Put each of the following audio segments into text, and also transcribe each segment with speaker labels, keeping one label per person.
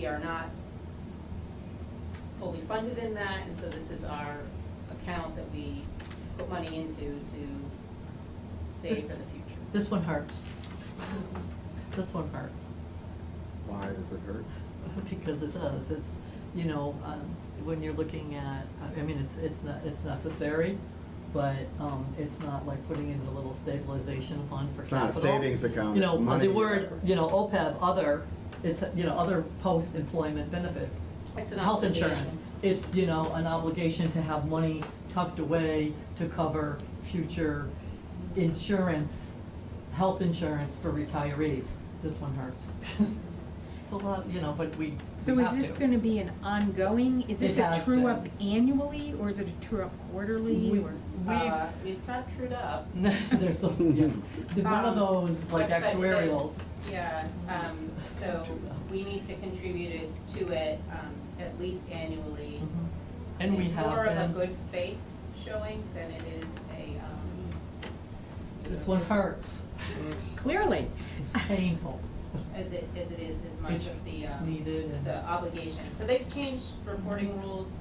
Speaker 1: We are not fully funded in that, and so this is our account that we put money into to save for the future.
Speaker 2: This one hurts. This one hurts,
Speaker 3: Why does it hurt?
Speaker 2: because it does, it's, you know, um, when you're looking at, I mean, it's, it's not, it's necessary, but, um, it's not like putting in a little stabilization fund for
Speaker 3: It's not a
Speaker 2: capital.
Speaker 3: savings account,
Speaker 2: You
Speaker 3: it's
Speaker 2: know, uh,
Speaker 3: money
Speaker 2: the word,
Speaker 3: you're-
Speaker 2: you know, OPEB, other, it's, you know, other post-employment benefits.
Speaker 1: It's an
Speaker 2: Health insurance,
Speaker 1: obligation.
Speaker 2: it's, you know, an obligation to have money tucked away to cover future insurance, health insurance for retirees. This one hurts. It's a lot, you know, but we
Speaker 4: So
Speaker 2: we have
Speaker 4: is
Speaker 2: to.
Speaker 4: this gonna be an ongoing, is this
Speaker 2: It
Speaker 4: a
Speaker 2: has
Speaker 4: true up
Speaker 2: been.
Speaker 4: annually, or is it a true up quarterly,
Speaker 2: We-
Speaker 4: or?
Speaker 1: Uh,
Speaker 2: We've,
Speaker 1: It's not trued up.
Speaker 2: there's, some- yeah, The- one
Speaker 1: Um,
Speaker 2: of those like
Speaker 1: but- but- but-
Speaker 2: actuarials.
Speaker 1: Yeah, um, so we need to contribute it to it, um, at least annually.
Speaker 2: Mhm. And we
Speaker 1: It's more of a
Speaker 2: have been,
Speaker 1: good faith showing than it is a, um,
Speaker 2: this one hurts,
Speaker 4: Clearly.
Speaker 2: it's painful,
Speaker 1: as it, as it is, as much
Speaker 2: It's
Speaker 1: of the, um,
Speaker 2: needed and.
Speaker 1: the obligation. So they've changed reporting rules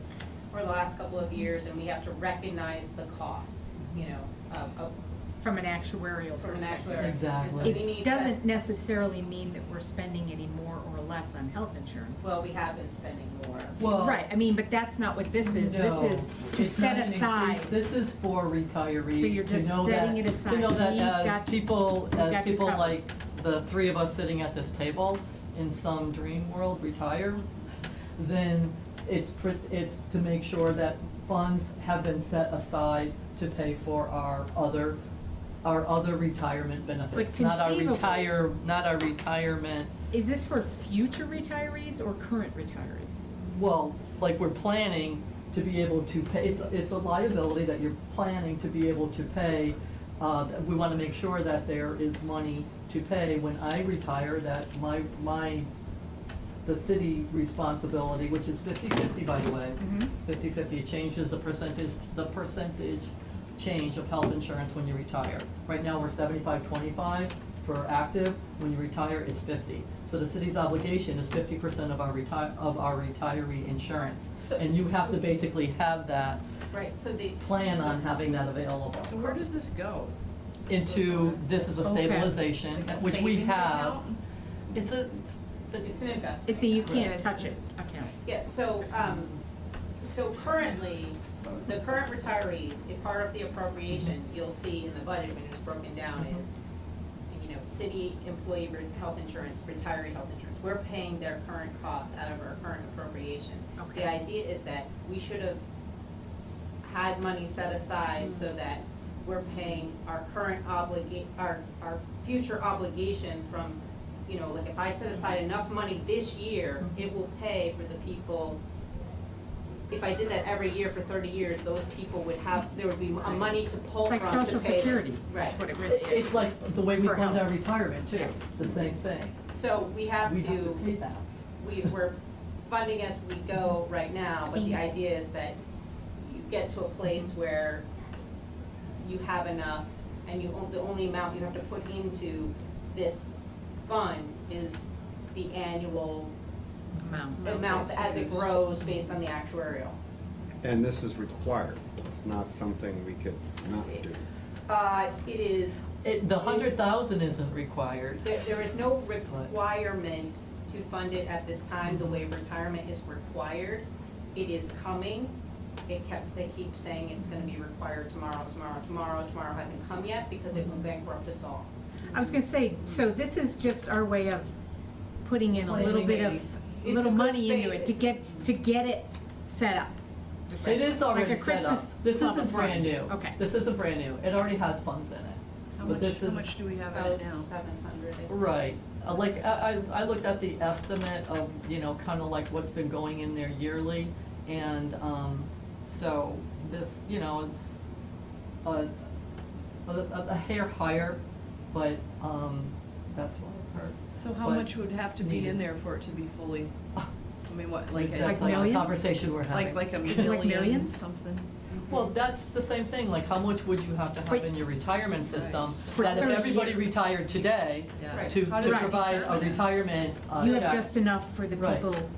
Speaker 1: for the last couple of years, and we have to recognize the cost, you know, of, of,
Speaker 4: From an actuarial
Speaker 1: from an
Speaker 4: perspective.
Speaker 1: actuary.
Speaker 2: Exactly.
Speaker 1: And so we need to-
Speaker 4: It doesn't necessarily mean that we're spending any more or less on health insurance.
Speaker 1: Well, we have been spending more.
Speaker 2: Well,
Speaker 4: Right, I mean, but that's not what this is, this
Speaker 2: No,
Speaker 4: is to
Speaker 2: it's not
Speaker 4: set
Speaker 2: an
Speaker 4: aside.
Speaker 2: increase. This is for
Speaker 4: So you're
Speaker 2: retirees, to
Speaker 4: just
Speaker 2: know that,
Speaker 4: setting it
Speaker 2: to know
Speaker 4: aside.
Speaker 2: that
Speaker 4: We've
Speaker 2: as
Speaker 4: got-
Speaker 2: people,
Speaker 4: we've
Speaker 2: as
Speaker 4: got you
Speaker 2: people
Speaker 4: covered.
Speaker 2: like the three of us sitting at this table in some dream world retire, then it's, pr- it's to make sure that funds have been set aside to pay for our other, our other retirement benefits. Not our
Speaker 4: conceivably-
Speaker 2: retire, not our retirement,
Speaker 4: Is this for future retirees or current retirees?
Speaker 2: well, like we're planning to be able to pay, it's, it's a liability that you're planning to be able to pay. Uh, that we wanna make sure that there is money to pay when I retire, that my, my, the city responsibility, which is fifty-fifty, by the way.
Speaker 5: Mm-hmm.
Speaker 4: Mhm.
Speaker 2: Fifty-fifty, it changes the percentage, the percentage change of health insurance when you retire. Right now, we're seventy-five, twenty-five for active, when you retire, it's fifty. So the city's obligation is fifty percent of our retire, of our retiree insurance.
Speaker 1: So-
Speaker 2: And you have to basically have that,
Speaker 1: Right, so the,
Speaker 2: plan on having that available.
Speaker 5: So where does this go?
Speaker 2: Into, this is a
Speaker 4: Okay.
Speaker 2: stabilization,
Speaker 5: Like a
Speaker 2: which we
Speaker 5: savings
Speaker 2: have.
Speaker 5: account?
Speaker 2: It's a,
Speaker 1: it's an investment.
Speaker 4: It's a you
Speaker 1: account.
Speaker 4: can't touch it account.
Speaker 1: Yeah, so, um, so currently, the current retirees, if part of the appropriation, you'll see in the budget when it's broken down is, you know, city employee re- health insurance, retiree health insurance, we're paying their current costs out of our current appropriation.
Speaker 4: Okay.
Speaker 1: The idea is that we should have had money set aside
Speaker 4: Mm.
Speaker 1: so that we're paying our current obliga, our, our future obligation from, you know, like if I set aside enough money this year,
Speaker 4: Mm-hmm.
Speaker 1: it will pay for the people. If I did that every year for thirty years, those people would have, there would be a money to pull
Speaker 4: It's
Speaker 1: from
Speaker 4: like
Speaker 1: to pay.
Speaker 4: social security,
Speaker 1: Right.
Speaker 4: That's what it really is.
Speaker 2: it's like the way we
Speaker 4: For
Speaker 2: fund
Speaker 4: health.
Speaker 2: our retirement too, the same thing.
Speaker 1: So we have
Speaker 2: We
Speaker 1: to,
Speaker 2: pay that.
Speaker 1: we, we're funding as we go right now, but the idea is that you get to a place where you have enough, and you, on- the only amount you have to put into this fund is the annual
Speaker 4: Amount.
Speaker 1: amount as it grows based on the actuarial.
Speaker 3: And this is required. It's not something we could not do.
Speaker 1: Uh, it is,
Speaker 2: It, the hundred thousand isn't required.
Speaker 1: there, there is no requirement to fund it at this time, the way retirement is required. It is coming. It kept, they keep saying it's gonna be required tomorrow, tomorrow, tomorrow, tomorrow hasn't come yet because it will bankrupt us all.
Speaker 4: I was gonna say, so this is just our way of putting in a little bit of,
Speaker 1: It's a
Speaker 4: little
Speaker 1: good
Speaker 4: money into
Speaker 1: thing.
Speaker 4: it, to get, to get it set up.
Speaker 2: It is already
Speaker 4: Like a
Speaker 2: set up.
Speaker 4: Christmas
Speaker 2: This
Speaker 4: club
Speaker 2: isn't
Speaker 4: of
Speaker 2: brand
Speaker 4: fun.
Speaker 2: new.
Speaker 4: Okay.
Speaker 2: This isn't brand new. It already has funds in it.
Speaker 5: How
Speaker 2: But
Speaker 5: much,
Speaker 2: this
Speaker 5: how
Speaker 2: is-
Speaker 5: much do we have in
Speaker 1: About
Speaker 5: it now?
Speaker 1: seven hundred.
Speaker 2: Right, Uh, like, I, I I looked at the estimate of, you know, kind of like what's been going in there yearly, and, um, so this, you know, is a, a, a hair higher, but, um, that's what I've heard.
Speaker 5: So how
Speaker 2: But
Speaker 5: much would have to be in
Speaker 2: needed.
Speaker 5: there for it to be fully I mean, what, like, a-
Speaker 2: That's
Speaker 4: Like
Speaker 2: like a
Speaker 4: millions?
Speaker 2: conversation we're having.
Speaker 5: like, like a
Speaker 4: Like
Speaker 5: million
Speaker 4: millions?
Speaker 5: something?
Speaker 2: Well, that's the same thing, like how much would you have to have
Speaker 4: But-
Speaker 2: in your retirement system?
Speaker 4: For
Speaker 2: That if
Speaker 4: 30
Speaker 2: everybody
Speaker 4: years.
Speaker 2: retired today,
Speaker 5: Yeah.
Speaker 2: to,
Speaker 1: Right.
Speaker 2: to
Speaker 5: How do I
Speaker 2: provide a
Speaker 5: determine that?
Speaker 2: retirement uh, check.
Speaker 4: You have just enough for the
Speaker 2: Right.
Speaker 4: people